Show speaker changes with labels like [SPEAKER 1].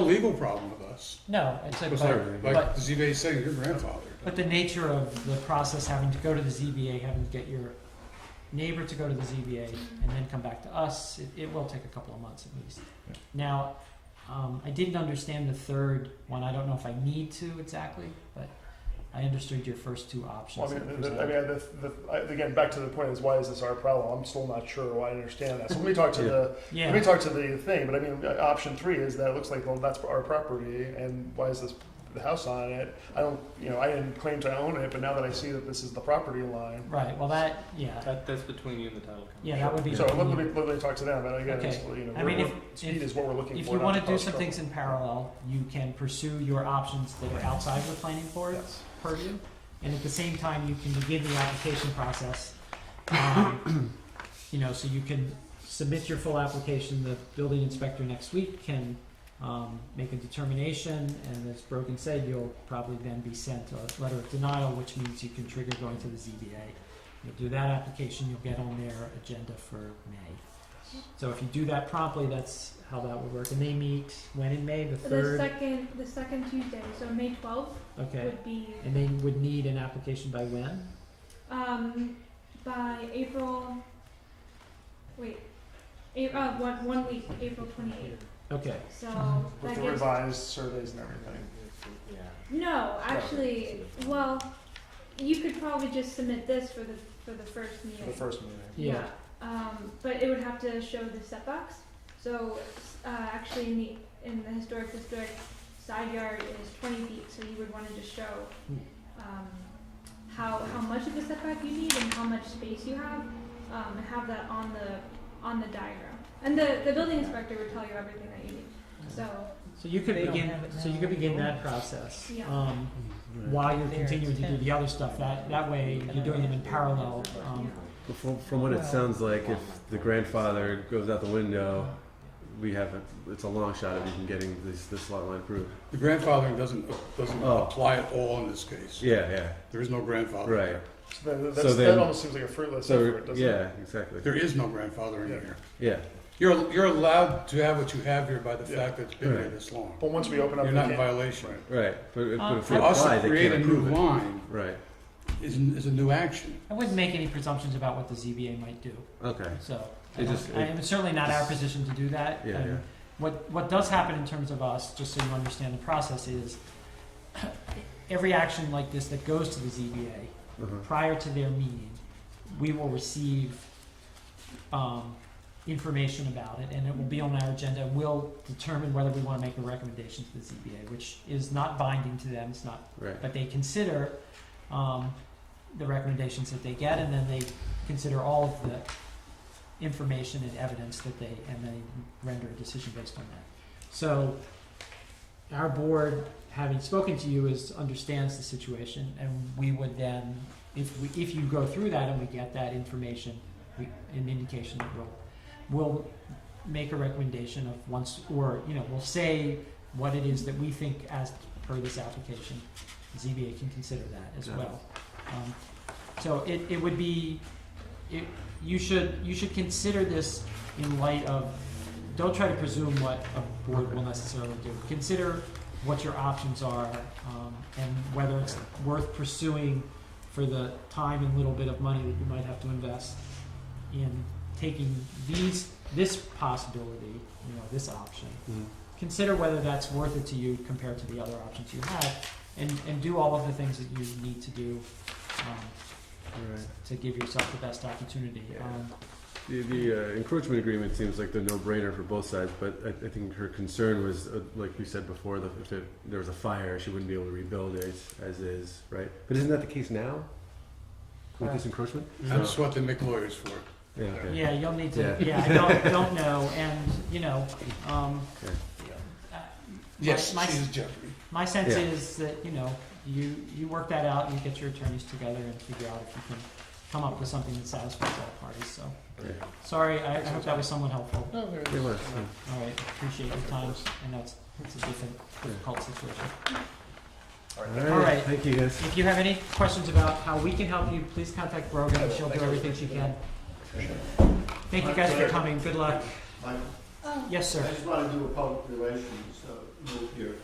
[SPEAKER 1] a legal problem with us.
[SPEAKER 2] No, it's a,
[SPEAKER 1] Because like,
[SPEAKER 2] but, but,
[SPEAKER 1] like ZBA saying your grandfather.
[SPEAKER 2] but the nature of the process, having to go to the ZBA, having to get your neighbor to go to the ZBA and then come back to us, it, it will take a couple of months at least.
[SPEAKER 3] Yeah.
[SPEAKER 2] Now, um, I didn't understand the third one, I don't know if I need to exactly, but I understood your first two
[SPEAKER 4] Well,
[SPEAKER 2] options
[SPEAKER 4] I
[SPEAKER 2] that were
[SPEAKER 4] mean, the, I
[SPEAKER 2] presented.
[SPEAKER 4] mean, the, the, I- again, back to the point is why is this our problem? I'm still not sure. Well, I understand that. So let me talk to the let me
[SPEAKER 2] Yeah,
[SPEAKER 4] talk to the thing. But I mean, uh, option three is that it looks like well, that's our property, and why is this the house on it? I don't, you know, I didn't claim to own it, but now that I see that this is the property line,
[SPEAKER 2] right, well, that, yeah,
[SPEAKER 5] That, that's between you and the title company.
[SPEAKER 2] yeah, that would be.
[SPEAKER 4] so let, let me let me talk to them. But again, it's,
[SPEAKER 2] Okay.
[SPEAKER 4] you know,
[SPEAKER 2] I mean,
[SPEAKER 4] we're-
[SPEAKER 2] if-
[SPEAKER 4] we're- speed
[SPEAKER 2] if-
[SPEAKER 4] is what we're looking
[SPEAKER 2] If
[SPEAKER 4] for.
[SPEAKER 2] you
[SPEAKER 4] not
[SPEAKER 2] wanna
[SPEAKER 4] to
[SPEAKER 2] do
[SPEAKER 4] cause
[SPEAKER 2] some
[SPEAKER 4] trouble.
[SPEAKER 2] things in parallel, you can pursue your options that are outside the planning board
[SPEAKER 4] Yes.
[SPEAKER 2] purview, and at the same time, you can begin the application process. Um, You know, so you can submit your full application, the building inspector next week can um, make a determination, and as Brogan said, you'll probably then be sent a letter of denial, which means you can trigger going to the ZBA. You'll do that application, you'll get on their agenda for May. So if you do that promptly, that's how that would work, and they meet when in May, the
[SPEAKER 6] The
[SPEAKER 2] third,
[SPEAKER 6] second, the second Tuesday, so May twelfth
[SPEAKER 2] okay,
[SPEAKER 6] would be,
[SPEAKER 2] and they would need an application by when?
[SPEAKER 6] um, by April, wait, A- uh, one, one week, April twenty-eighth,
[SPEAKER 2] Okay,
[SPEAKER 6] so
[SPEAKER 4] with
[SPEAKER 6] that
[SPEAKER 4] the
[SPEAKER 6] gives.
[SPEAKER 4] revised surveys and everything.
[SPEAKER 5] Yeah.
[SPEAKER 6] No, actually, well, you could probably just submit this for the, for the first
[SPEAKER 4] for The
[SPEAKER 6] meeting.
[SPEAKER 4] first meeting.
[SPEAKER 2] yeah,
[SPEAKER 6] Um, but it would have to show the setbacks, so, uh, actually in the, in the historic district, side yard is twenty feet, so you would wanna just show,
[SPEAKER 2] Hmm.
[SPEAKER 6] um, how, how much of a setback you need and how much space you have, um, and have that on the, on the diagram. And the, the building inspector would tell you everything that you need, so,
[SPEAKER 2] so you could
[SPEAKER 7] They don't
[SPEAKER 2] begin,
[SPEAKER 7] have it
[SPEAKER 2] so you
[SPEAKER 7] now
[SPEAKER 2] could
[SPEAKER 7] in the
[SPEAKER 2] begin that
[SPEAKER 7] rules.
[SPEAKER 2] process.
[SPEAKER 6] Yeah.
[SPEAKER 2] Um, while you're continuing to do the other stuff. That, that way, you're doing them in parallel. Um,
[SPEAKER 3] But From, from what it sounds like, if the grandfather goes out the window, we have a, it's a long shot of even getting this this lot line approved.
[SPEAKER 1] The grandfathering doesn't, doesn't
[SPEAKER 3] Oh.
[SPEAKER 1] apply at all in this case.
[SPEAKER 3] Yeah,
[SPEAKER 1] There is no
[SPEAKER 3] yeah,
[SPEAKER 1] grandfather.
[SPEAKER 3] right.
[SPEAKER 4] So that, that's,
[SPEAKER 3] then-
[SPEAKER 4] that almost seems like a fruitless
[SPEAKER 3] So
[SPEAKER 4] effort, doesn't it?
[SPEAKER 3] yeah, exactly.
[SPEAKER 1] There is no grandfather in
[SPEAKER 4] Yeah.
[SPEAKER 1] here.
[SPEAKER 3] Yeah,
[SPEAKER 1] You're, you're allowed to have what you have here by the
[SPEAKER 4] Yeah.
[SPEAKER 1] fact that it's been here
[SPEAKER 3] Right.
[SPEAKER 1] this long.
[SPEAKER 4] But once we open up,
[SPEAKER 1] You're
[SPEAKER 4] the
[SPEAKER 1] not in
[SPEAKER 4] can-
[SPEAKER 1] violation.
[SPEAKER 4] Right.
[SPEAKER 3] right. But, if- but if we
[SPEAKER 1] For us
[SPEAKER 3] apply,
[SPEAKER 1] to
[SPEAKER 3] they
[SPEAKER 1] Um, create
[SPEAKER 3] can't
[SPEAKER 1] a new
[SPEAKER 3] approve it.
[SPEAKER 1] line
[SPEAKER 3] Right.
[SPEAKER 1] is, is a new action.
[SPEAKER 2] I wouldn't make any presumptions about what the ZBA might do,
[SPEAKER 3] Okay.
[SPEAKER 2] so. I
[SPEAKER 3] It
[SPEAKER 2] don't-
[SPEAKER 3] just-
[SPEAKER 2] I am certainly not our
[SPEAKER 3] just-
[SPEAKER 2] position to do that.
[SPEAKER 3] Yeah,
[SPEAKER 2] and
[SPEAKER 3] yeah.
[SPEAKER 2] What, what does happen in terms of us, just so you understand the process, is every action like this that goes to the ZBA,
[SPEAKER 3] Uh-huh.
[SPEAKER 2] prior to their meeting, we will receive um, information about it, and it will be on our agenda. We'll determine whether we want to make a recommendation to the ZBA, which is not binding to them. It's not,
[SPEAKER 3] Right.
[SPEAKER 2] but they consider um, the recommendations that they get, and then they consider all of the information and evidence that they, and they render a decision based on that. So, our board, having spoken to you, is understands the situation, and we would then, if we, if you go through that and we get that information, we, an indication that we'll, we'll make a recommendation of once, or, you know, we'll say what it is that we think as per this application. ZBA can consider that as
[SPEAKER 3] Yeah.
[SPEAKER 2] well. Um, so it, it would be, it, you should, you should consider this in light of, don't try to presume what a board will necessarily do. Consider what your options are, um, and whether it's worth pursuing for the time and little bit of money that you might have to invest in taking these, this possibility, you know, this option.
[SPEAKER 3] Mhm.
[SPEAKER 2] Consider whether that's worth it to you compared to the other options you have, and, and do all of the things that you need to do, um,
[SPEAKER 3] Right.
[SPEAKER 2] to give yourself the best opportunity.
[SPEAKER 3] Yeah.
[SPEAKER 2] Um,
[SPEAKER 3] The, the uh, encroachment agreement seems like the no-brainer for both sides, but I, I think her concern was, uh, like we said before, that if there, there was a fire, she wouldn't be able to rebuild it as is, right? But isn't that the case now with this encroachment?
[SPEAKER 1] That's what they make lawyers for.
[SPEAKER 3] Yeah. Okay.
[SPEAKER 2] Yeah, you'll need to,
[SPEAKER 3] Yeah.
[SPEAKER 2] yeah, I don't, don't know, and, you know, um, uh,
[SPEAKER 3] Okay.
[SPEAKER 1] Yes,
[SPEAKER 2] my-
[SPEAKER 1] she's Jeffrey.
[SPEAKER 2] My sense
[SPEAKER 3] Yeah.
[SPEAKER 2] is that, you know, you, you work that out, you get your attorneys together and figure out if you can come up with something that satisfies all parties, so.
[SPEAKER 3] Yeah.
[SPEAKER 2] Sorry, I, I hope that was somewhat helpful.
[SPEAKER 4] No, there it
[SPEAKER 3] It
[SPEAKER 4] is.
[SPEAKER 3] was, yeah.
[SPEAKER 2] All right, appreciate your time, I know it's, it's a different, difficult situation.
[SPEAKER 3] All
[SPEAKER 2] right.
[SPEAKER 3] right, thank you guys.
[SPEAKER 2] If you have any questions about how we can help you, please contact Brogan, she'll do everything she can. Thank you guys for coming, good luck.
[SPEAKER 8] Mike,
[SPEAKER 2] Yes,
[SPEAKER 8] I
[SPEAKER 2] sir.
[SPEAKER 8] just want to do a public relations uh,